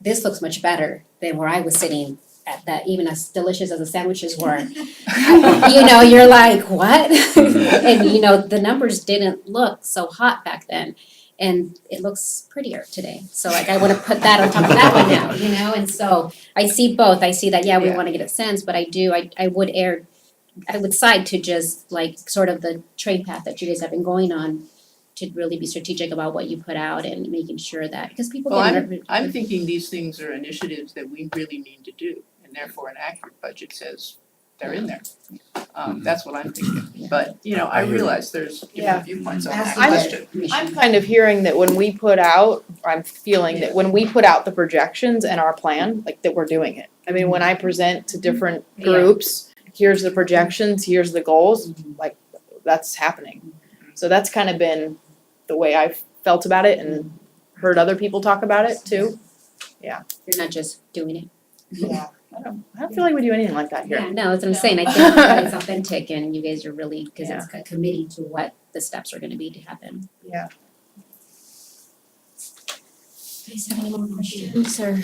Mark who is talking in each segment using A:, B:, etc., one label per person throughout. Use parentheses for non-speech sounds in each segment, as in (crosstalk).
A: this looks much better than where I was sitting at that, even as delicious as the sandwiches
B: (laughs)
A: were. (laughs) you know, you're like, what?
C: Mhm.
B: Mm-hmm.
A: and you know, the numbers didn't look so hot back then. And it looks prettier today. So like I want to put that on top of that one now, you know? And so I see both. I see that, yeah, we
B: Yeah.
A: want to get a sense, but I do, I I would err I would side to just like sort of the train path that you guys have been going on to really be strategic about what you put out and making sure that because people
B: Well,
A: get nerv-
B: I'm thinking these things are initiatives that we really need to do, and therefore an accurate budget says they're in there. Um, that's what I'm thinking, but, you know, I
C: Mm-hmm. I hear you.
B: realize there's
D: Yeah.
B: different viewpoints on that
D: I'm-
B: question.
D: I'm kind of hearing that when we put out, I'm feeling that when we put out the projections and our plan, like that we're doing it. I mean, when I present to different
A: Yeah.
D: groups, here's the projections, here's the goals, like that's happening. So that's kind of been the way I've felt about it and heard other people talk about it too.
A: you're not just doing it.
B: (laughs)
D: Yeah. I don't, I don't feel like we do anything like that
A: Yeah,
D: here.
A: no, that's what I'm
E: No.
A: saying, I think that it's authentic and you guys are really, cause it's co- committing to what the steps are gonna be to happen.
D: (laughs) Yeah.
A: Guys, have any more questions Sir,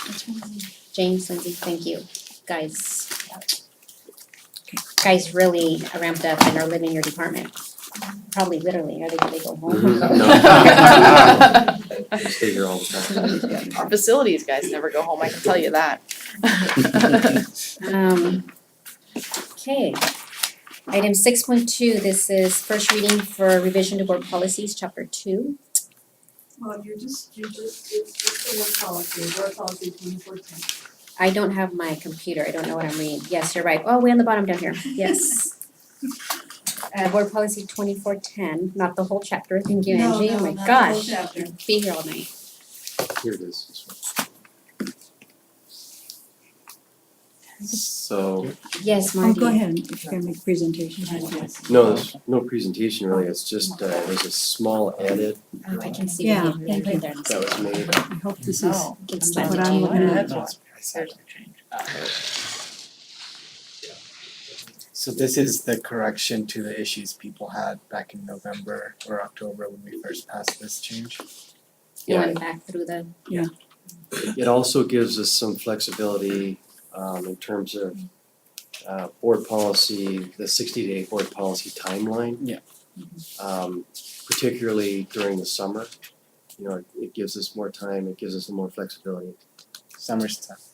A: Mm-hmm. James, Lindsay, thank you, guys. Guys really ramped up and are living your department, probably literally, are they, they go home?
C: Mhm.
D: Our
C: I stay here all the time.
D: facilities guys never go home, I can tell you that. (laughs)
A: Um, okay. Item six point two, this is first reading for revision to board policies, chapter two.
E: Well, you're just, you're just, it's, it's the work policy, work policy twenty fourteen.
A: I don't have my computer, I don't know what I'm reading. Yes, you're right. Oh, way on the bottom
F: (laughs)
A: down here, yes.
E: (laughs)
A: Uh, board policy twenty four ten, not the whole chapter, thank you Angie, oh my gosh,
E: No, no, not the whole chapter.
A: be here all night.
C: Here it is. So,
A: Yes,
F: Oh,
A: Marty.
F: go ahead, if you're gonna make presentations, yes.
C: no, there's no presentation really, it's just, uh, there's a small edit
A: Oh, I can see
F: Yeah,
A: what you
F: thank you.
A: there.
C: that was made.
F: I hope this is
B: Oh.
A: It's
F: what
A: strategy.
F: I'm looking at.
G: So this is the correction to the issues people had back in November or October when we first passed this change.
A: You
C: Yeah.
A: went back through the,
C: It also gives us some flexibility um in terms of uh board policy, the sixty day board policy timeline.
G: Yeah.
C: Um particularly during the summer, you know, it it gives us more time, it gives us more flexibility.
G: Summer stuff.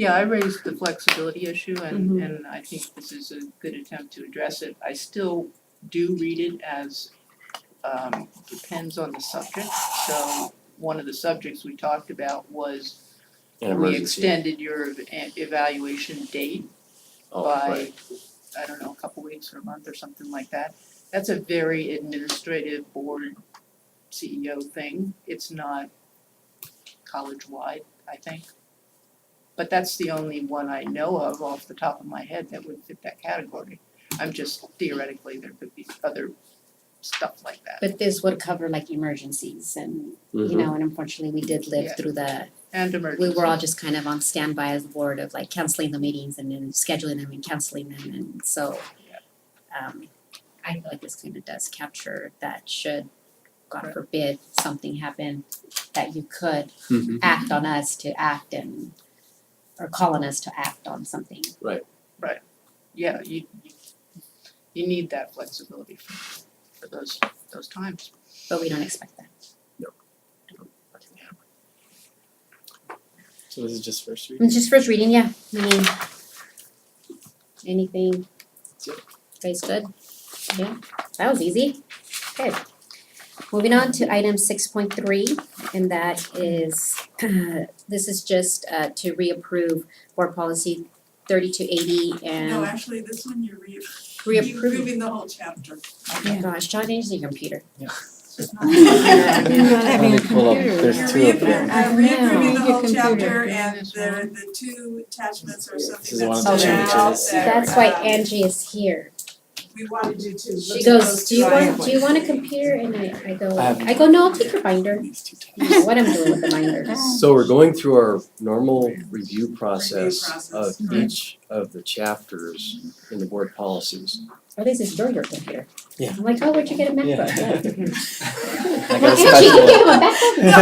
B: Yeah, I raised the flexibility issue and
D: Mm-hmm.
B: and I think this is a good attempt to address it. I still do read it as um depends on the subject. So one of the subjects we talked about was
C: An
B: we
C: emergency.
B: extended your ev- e- evaluation date
C: Oh,
B: by,
C: right.
B: I don't know, a couple weeks or a month or something like that. That's a very administrative board CEO thing. It's not college-wide, I think. But that's the only one I know of off the top of my head that would fit that category. I'm just theoretically, there could be other stuff like that.
A: but this would cover like emergencies and, you
C: Mhm.
A: know, and unfortunately, we did live
B: Yeah.
A: through the
B: And
A: we
B: emergency.
A: were all just kind of on standby as a board of like canceling the meetings and then scheduling them and canceling them and so um I feel like this kind of does capture that should, God
B: Right.
A: forbid, something happen that you could
C: Mhm.
A: act on us to act and or call on us to act on something.
B: Yeah, you you you need that flexibility for for those those times.
A: But we don't expect that.
G: So this is just first read.
A: It's just first reading, yeah. I mean anything.
G: Yep.
A: Guys good? Yeah, that was easy. Good. Moving on to item six point three, and that is, (clears throat) this is just uh to reapprove board policy thirty-two eighty
E: No,
A: and
E: actually, this one you're re-
A: reapprove.
E: approving the whole chapter.
A: Oh Gosh, John, you need your computer. (laughs)
F: You're not having a
G: Let me pull up.
F: computer.
G: There's two of them.
E: You're
A: I
E: reappro- uh, reapproving the
F: know.
E: whole
F: Your computer.
E: chapter and the the two attachments or
G: This
E: something
G: is one
E: that's
G: of
A: the
E: stood out
G: changes.
E: that,
A: That's why
E: um,
A: Angie is here.
E: We wanted you to look
A: She goes,
E: at those
A: do you
E: two
A: want, do you
E: items."
A: want a computer? And I I go,
G: I haven't.
A: I go, no, I'll take your binder.
G: These two
A: I don't know what I'm doing with the
G: (laughs)
A: binder.
C: So we're going through our normal review process
E: process.
C: of
E: Mhm.
C: each of the chapters in the board policies.
A: Oh, this is your work computer.
G: Yeah.
A: I'm (laughs) like, oh, where'd you get a MacBook?
G: Yeah. (laughs)
A: Yeah.
G: I
A: Well,
G: got a
A: Angie, you
G: special one. (laughs)
A: gave him a MacBook?